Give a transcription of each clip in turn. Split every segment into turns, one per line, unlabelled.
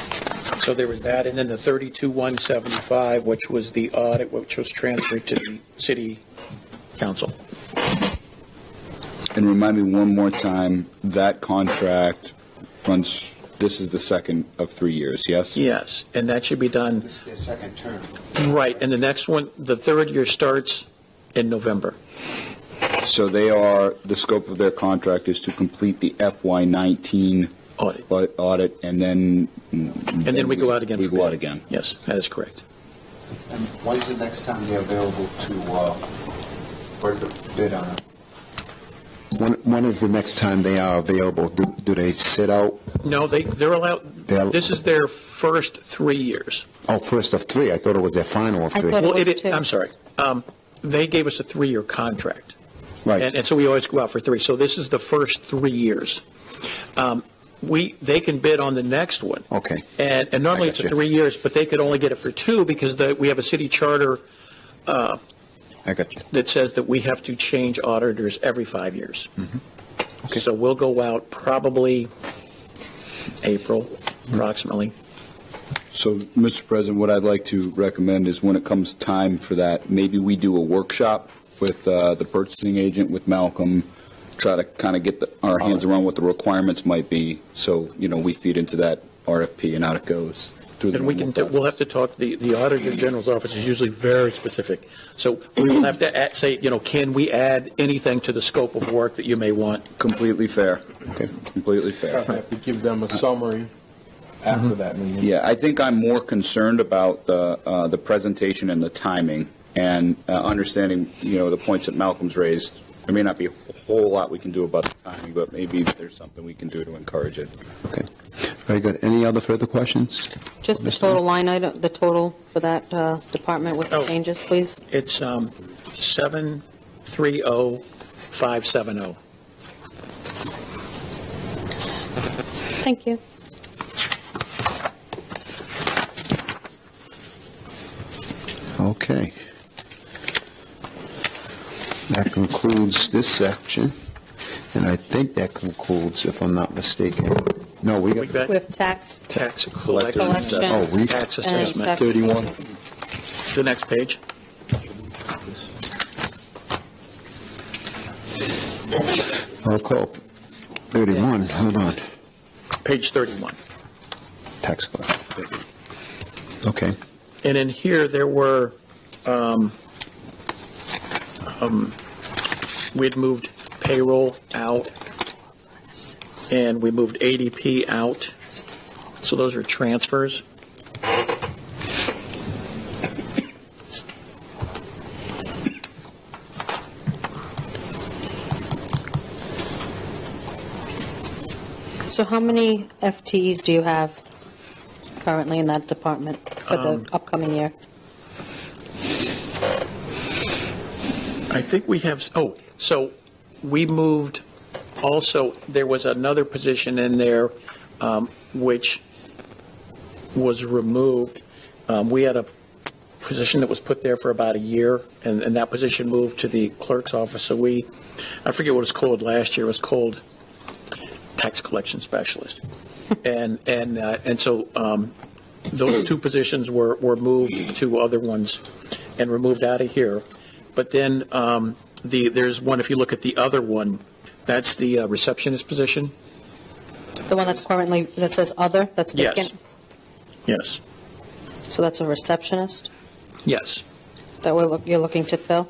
So there was that, and then the 32,175, which was the audit, which was transferred to the city council.
And remind me one more time, that contract runs, this is the second of three years, yes?
Yes, and that should be done,
This is their second term.
right, and the next one, the third year starts in November.
So they are, the scope of their contract is to complete the FY19
Audit.
au- audit, and then... And
And then we go out again
We
for
go out
bid.
again.
Yes, that is correct.
And when's the next time they're available to uh, work a bid on it?
When, when is the next time they are available? Do, do they sit out?
No, they, they're allowed,
They're-
this is their first three years.
Oh, first of three. I thought it was their final of
I
three.
thought- But it
Well,
was
it,
two.
I'm sorry, um, they gave us a three-year contract.
Right.
And, and so we always go out for three. So this is the first three years. Um, We, they can bid on the next one.
Okay.
And, and normally
I
it's
got you.
three years, but they could only get it for two because the, we have a city charter
I got you.
that says that we have to change auditors every five years.
Mm-hmm.
So we'll go out probably April approximately.
So, Mr. President, what I'd like to recommend is when it comes time for that, maybe we do a workshop with uh, the purchasing agent, with Malcolm, try to kind of get the- our hands around what the requirements might be, so, you know, we feed into that RFP and out it goes through the
And we
normal
can, we'll have to talk, the, the Auditor General's office is usually very specific. So we will have to add- say, you know, can we add anything to the scope of work that you may want?
process. Completely fair.
Okay.
Completely fair.
I have to give them a summary after that meeting.
Yeah, I think I'm more concerned about the, uh, the presentation and the timing and uh, understanding, you know, the points that Malcolm's raised. There may not be a whole lot we can do about the timing, but maybe there's something we can do to encourage it.
Okay. Very good. Any other further questions?
Just the
Mr.
total line item, the total for that uh, department with the
Oh.
changes, please?
It's um, 730570.
Thank you.
Okay. That concludes this section. And I think that concludes, if I'm not mistaken. No, we
We
got
got
We have tax,
tax collector
Collection.
assessment.
Oh, we-
Tax
And
assessment.
tax-
31.
The next page.
Roll call. 31, hold on.
Page 31.
Tax collector. Okay.
And in here, there were, um, um, we'd moved payroll out, and we moved ADP out. So those are transfers.
so how many FTEs do you have currently in that department for
Um,
the upcoming year?
I think we have, oh, so we moved, also, there was another position in there um, which was removed. Um, We had a position that was put there for about a year, and, and that position moved to the clerk's office. So we, I forget what it was called last year, it was called tax collection specialist. And, and, uh, and so um, those two positions were, were moved to other ones and removed out of here. But then um, the, there's one, if you look at the other one, that's the uh, receptionist position?
The one that's currently, that says other, that's
Yes.
vacant?
Yes,
So that's a receptionist
yes,
that we're, look- you're looking to fill?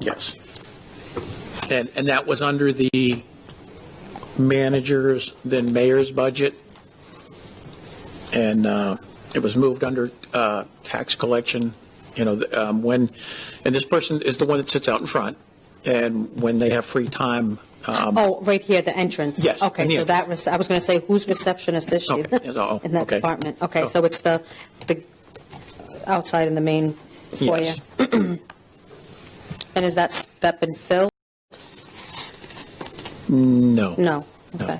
yes. And, and that was under the manager's, then mayor's budget. And uh, it was moved under uh, tax collection, you know, the, um, when, and this person is the one that sits out in front, and when they have free time. um,
Oh, right here, the entrance?
Yes, in
Okay,
the
so that, rece- I was going to say, whose receptionist is she?
Okay, yes, oh,
In that
okay.
department? Okay,
Oh.
so it's the, the outside in the main foyer?
Yes,
And is that, s- that been filled?
no.
No. Okay.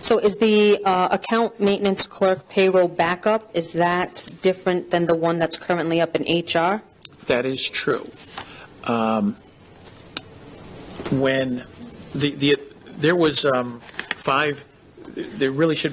So is the uh, account maintenance clerk payroll backup, is that different than the one that's currently up in HR?
That is true. Um, When the, the there was um, five, there really should be.